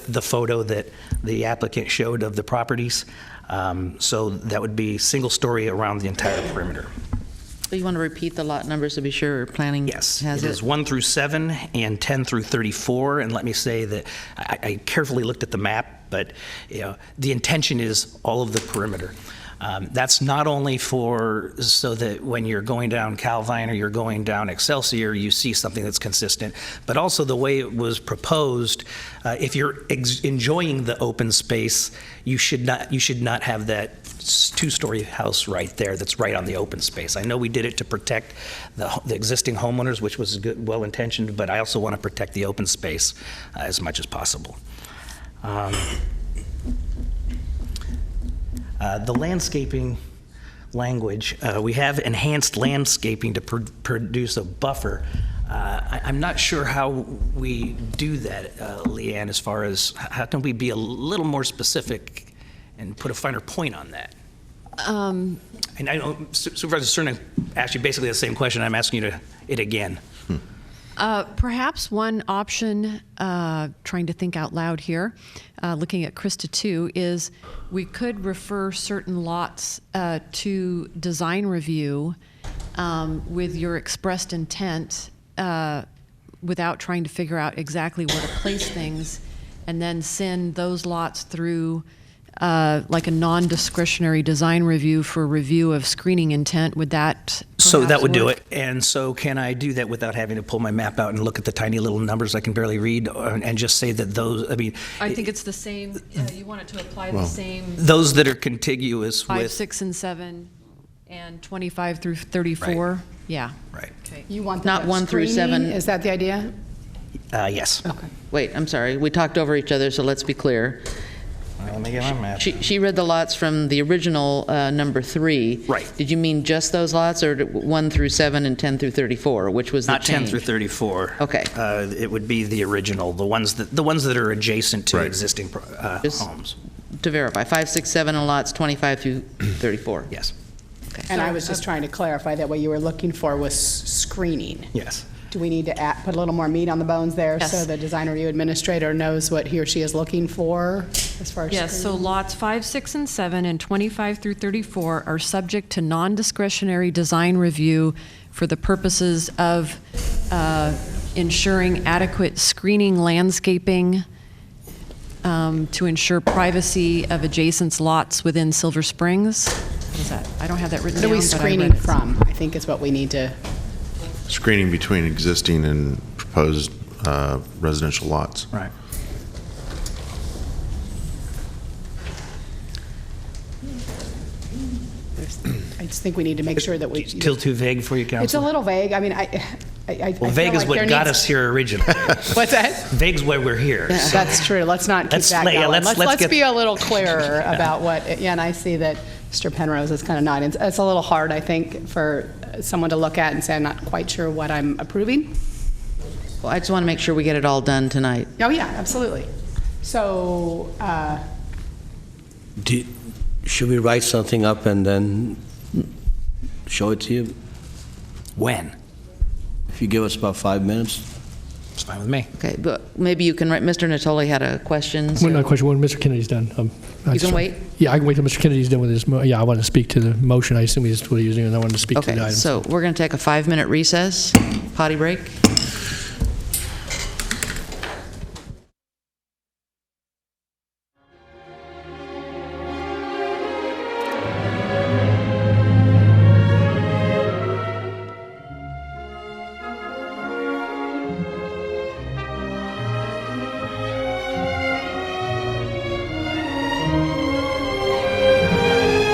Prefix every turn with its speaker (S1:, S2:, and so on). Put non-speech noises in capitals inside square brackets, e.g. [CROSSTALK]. S1: the photo that the applicant showed of the properties. Um, So that would be single-story around the entire perimeter.
S2: So you want to repeat the lot numbers to be sure planning
S1: Yes,
S2: has
S1: it is 1 through 7 and 10 through 34. And let me say that I I carefully looked at the map, but, you know, the intention is all of the perimeter. Um, That's not only for, so that when you're going down Calvine or you're going down Excelsior, you see something that's consistent, but also the way it was proposed, uh, if you're ex- enjoying the open space, you should not, you should not have that s- two-story house right there that's right on the open space. I know we did it to protect the, ho- the existing homeowners, which was good, well-intentioned, but I also want to protect the open space uh, as much as possible. Um, uh, The landscaping language, uh, we have enhanced landscaping to pr- produce a buffer. Uh, I- I'm not sure how we do that, uh, Leanne, as far as, h- how can we be a little more specific and put a finer point on that?
S3: Um,
S1: And I know Su- Supervisor Cernan asked you basically the same question, I'm asking you to, it again.
S3: uh, Perhaps one option, uh, trying to think out loud here, uh, looking at Krista too, is we could refer certain lots uh, to design review um, with your expressed intent uh, without trying to figure out exactly where to place things, and then send those lots through uh, like a non-discretionary design review for review of screening intent. Would that?
S1: So that
S3: perhaps
S1: would do
S3: work?
S1: it. And so can I do that without having to pull my map out and look at the tiny little numbers I can barely read uh, and just say that those, I mean,
S3: I think it's the same, uh, you want it to apply the same
S1: those that are contiguous
S3: five,
S1: with.
S3: six, and seven, and 25 through 34, yeah.
S1: Right.
S4: You want
S2: Not
S4: that
S2: one through
S4: screening?
S2: seven.
S4: Is that the idea?
S1: Uh, yes.
S4: Okay.
S2: Wait, I'm sorry, we talked over each other, so let's be clear.
S1: Let me get my map.
S2: She, she read the lots from the original uh, number three.
S1: Right.
S2: Did you mean just those lots, or did- 1 through 7 and 10 through 34, which was the
S1: Not
S2: change?
S1: 10 through 34.
S2: Okay.
S1: Uh, it would be the original, the ones that, the ones that are adjacent to
S5: Right.
S1: existing pro- uh,
S2: Just-
S1: homes.
S2: To verify, 5, 6, 7, and lots
S1: [CLEARS THROAT]
S2: 25 through 34.
S1: Yes,
S4: And I was just trying to clarify that what you were looking for was screening.
S1: yes.
S4: Do we need to add, put a little more meat on the bones there? So
S3: Yes.
S4: the design review administrator knows what he or she is looking for as far as
S3: Yes, so
S4: screening?
S3: lots 5, 6, and 7, and 25 through 34 are subject to non-discretionary design review for the purposes of uh, ensuring adequate screening landscaping um, to ensure privacy of adjacent lots within Silver Springs. What is that? I don't have that written
S4: What
S3: down,
S4: are we
S3: but I read
S4: screening
S3: it.
S4: from? I think is what we need to,
S5: Screening between existing and proposed uh, residential lots.
S1: Right.
S4: there's- I just think we need to make sure that we.
S1: Still too vague for you,
S4: It's a
S1: Counselor?
S4: little vague. I mean, I, I- I. I feel
S1: Well, vague is
S4: like
S1: what
S4: there
S1: got
S4: needs-
S1: us here
S4: [LAUGHS]
S1: originally.
S4: What's that?
S1: Vague's why we're here. so-
S4: [LAUGHS] That's true. Let's not keep
S1: Let's
S4: that
S1: lay- yeah,
S4: going.
S1: let's-
S4: Let's,
S1: let's
S4: let's
S1: get-
S4: be a little clearer
S1: [LAUGHS]
S4: about what, yeah, and I see that Mr. Penrose is kind of nodding. It's- It's a little hard, I think, for someone to look at and say, I'm not quite sure what I'm approving.
S2: Well, I just want to make sure we get it all done tonight.
S4: Oh, yeah, absolutely. So, uh,
S6: Do- Should we write something up and then show it to you?
S1: When?
S6: If you give us about five minutes?
S1: It's fine with me.
S2: Okay, but maybe you can, write- Mr. Natoli had a question. so-
S7: One other question, when Mr. Kennedy's done. um, I
S2: You
S7: just-
S2: can wait?
S7: Yeah, I can wait till Mr. Kennedy's done with his, mo- yeah, I want to speak to the motion, I assume he's what he's doing, and I wanted to speak to the
S2: Okay,
S7: item.
S2: so we're going to take a five-minute recess, potty break.